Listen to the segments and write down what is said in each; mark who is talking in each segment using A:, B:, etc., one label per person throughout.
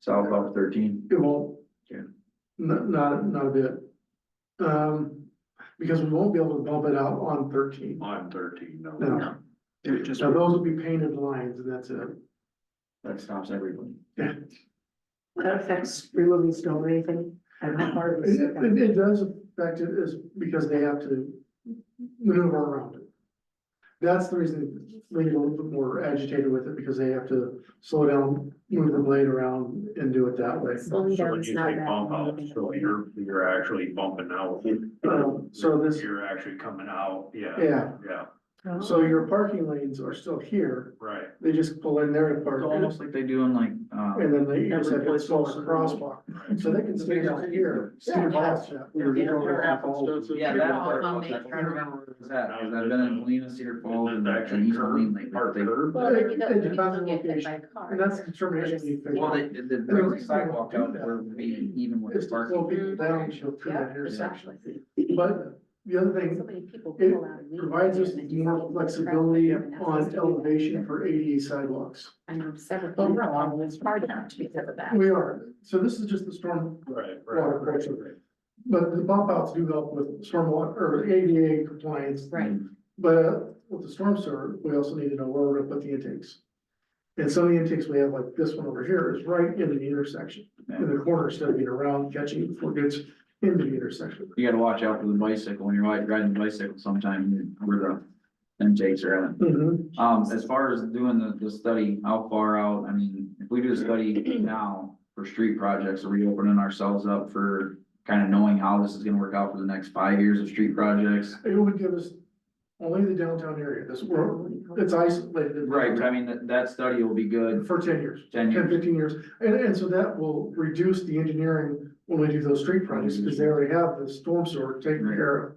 A: south off thirteen.
B: It won't.
A: Yeah.
B: Not, not, not a bit. Um, because we won't be able to bump it out on thirteen.
C: On thirteen, no.
B: No,
C: It would just,
B: now those will be painted lines and that's it.
A: That stops everybody.
D: That affects removing snow or anything, and how hard it
B: It,
D: is.
B: it- it does affect it is because they have to maneuver around it. That's the reason we get a little bit more agitated with it because they have to slow down, move the blade around and do it that way.
D: Slowing
C: so
D: down
C: when
D: is
C: you
D: not
C: say
D: that.
C: bump out, so you're, you're actually bumping out.
B: Um, so this,
C: You're actually coming out, yeah,
B: yeah,
C: yeah,
D: Oh.
B: so your parking lanes are still here.
C: right.
B: They just pull in there and park.
A: It's almost like they do in like, um,
B: And then they use
E: Every
B: that
E: place
B: small
E: else in the
B: crosswalk,
C: right.
B: so they can stay down here.
E: Yeah.
B: see the cross check.
A: we were
E: Yeah,
A: going
E: there
A: off
E: happens
A: Falls.
E: to us.
A: Yeah, that part,
E: Yeah.
A: I can't remember where it was at, because I've been in Molina, Cedar Falls
C: Is
A: and
C: it
A: and
C: actually
A: East Moline
C: curb,
A: lately.
C: or
A: but they-
C: curb?
D: Well, then you
B: It
D: don't, you
B: depends on
D: don't get hit by a
B: location.
D: car.
B: And that's the determination you figure
A: Well,
B: out.
A: they, they bring the sidewalk out that we're maybe even with
B: It's
A: the
B: to slow
A: parking.
E: Mm-hmm.
B: people down, she'll through
D: Yeah,
B: that intersection.
D: exactly.
B: But the other
D: So
B: thing,
D: many people
B: it
D: pull out and leave.
B: provides us
D: and then you
B: more
D: see
B: flexibility
D: traffic, and that's supposed
B: on
D: to be
B: elevation
D: that.
B: for ADA sidewalks.
D: I know several
B: Oh,
D: people,
B: no, I'm-
D: it's hard not to because of that.
B: We are, so this is just the storm, Water
C: Right, right, right.
B: pressure. but the bump outs do help with stormwater, or ADA compliance.
D: Right.
B: But with the storm sewer, we also need to know where we're gonna put the intakes. And some of the intakes we have, like this one over here, is right in the intersection, in the corner, instead of being around catching it before it gets into the intersection.
A: You gotta watch out for the bicycle, when you're ri- riding the bicycle sometime, where the intakes are at. Um, as far as doing the, the study, how far out, I mean, if we do a study now for street projects, are we opening ourselves up for kind of knowing how this is gonna work out for the next five years of street projects?
B: It would give us only the downtown area, this, we're- it's isolated.
A: Right, but I mean, that, that study will be good
B: For ten years,
A: ten
B: ten,
A: years.
B: fifteen years, and, and so that will reduce the engineering when we do those street projects, because they already have the storm sewer taken care of.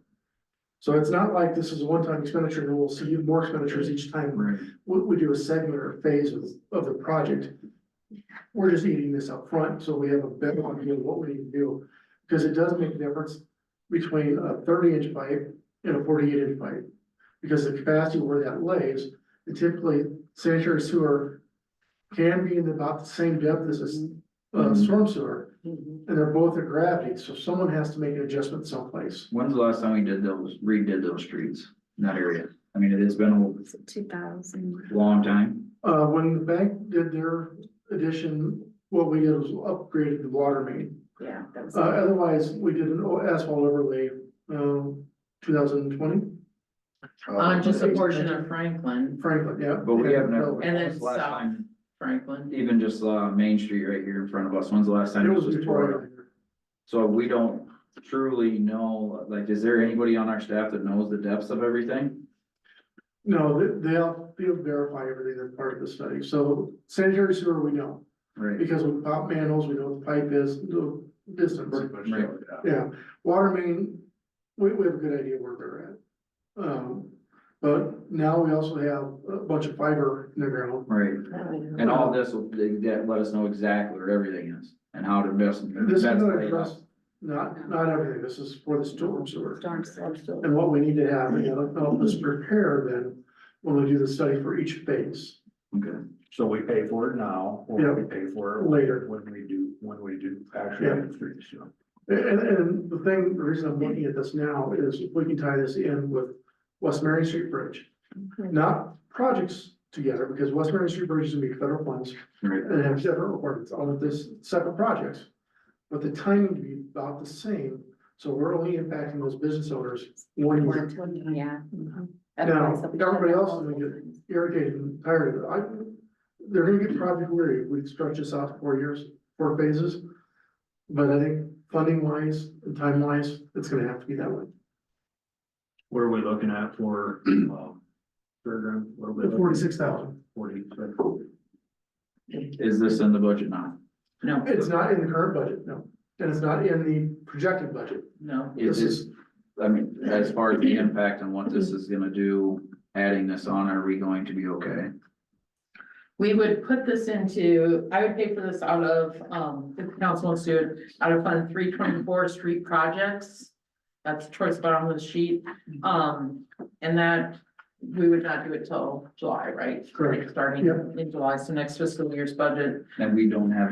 B: So it's not like this is a one-time expenditure, and we'll see more expenditures each time
A: Right.
B: we, we do a segment or a phase of, of the project. We're just eating this up front, so we have a better idea of what we need to do, because it does make a difference between a thirty inch pipe and a forty eight inch pipe. Because the capacity where that lays, and typically sanitary sewer can be in about the same depth as a s- uh, storm sewer,
D: Mhm.
B: and they're both at gravity, so someone has to make an adjustment someplace.
A: When's the last time we did those, redid those streets in that area? I mean, it has been
D: So two thousand.
A: a long time.
B: Uh, when the bank did their addition, what we did was upgraded the water main.
D: Yeah, that was.
B: Uh, otherwise, we did an asphalt overlay, um, two thousand twenty,
C: Uh,
E: On just a portion of Franklin,
B: Franklin, yeah.
A: But we have never.
E: And then
A: when's the last
E: south.
A: time,
E: Franklin.
A: Even just, uh, Main Street right here in front of us, when's the last time
B: It
A: this
B: was
A: was tore up?
B: before,
A: So we don't truly know, like, is there anybody on our staff that knows the depths of everything?
B: no, they, they'll, they'll verify everything that's part of the study, so sanitary sewer, we know,
A: Right.
B: because of pop manholes, we know what the pipe is, the distance.
C: Pretty much,
A: Right.
C: yeah.
B: Yeah, water main, we, we have a good idea where they're at. Um, but now we also have a bunch of fiber in the ground,
A: Right, and
D: And
A: all this will, that let us know exactly where everything is and how to best.
B: this is
A: best
B: gonna
A: lay it out.
B: address, not, not everything, this is for the storm sewer.
D: Storm still.
B: And what we need to have, you know, help us prepare then, when we do the study for each phase
A: Okay,
C: So we pay for it now, or we pay for it
B: later.
C: when we do, when we do actually
B: Yeah.
C: have streets, you know.
B: And, and the thing, the reason I'm looking at this now is if we can tie this in with West Marion Street Bridge. Not projects together, because West Marion Street Bridge is gonna be federal funds
A: right.
B: and have separate requirements all of this separate projects. But the timing to be about the same, so we're only impacting those business owners one year.
D: Yeah.
B: Now,
D: Otherwise, they'll be
B: everybody
D: shut
B: else
D: down
B: is gonna
D: multiple times.
B: irritated and tired of it. I, they're gonna get project weary. We stretch this out to four years, four phases. But I think funding wise and time wise, it's gonna have to be that way.
C: What are we looking at for, um, program, what are we?
B: The forty-six thousand.
C: Forty.
A: Is this in the budget now?
E: No,
B: It's not in the current budget, no. And it's not in the projected budget.
E: no,
A: Is
B: This
A: this,
B: is,
A: I mean, as far as the impact and what this is gonna do, adding this on, are we going to be okay?
E: we would put this into, I would pay for this out of, um, if the council wants to, do it, out of fund three twenty-four street projects. That's towards the bottom of the sheet, um, and that, we would not do it till July, right?
B: Correct.
E: Starting in July, so next fiscal year's budget,
A: And we don't have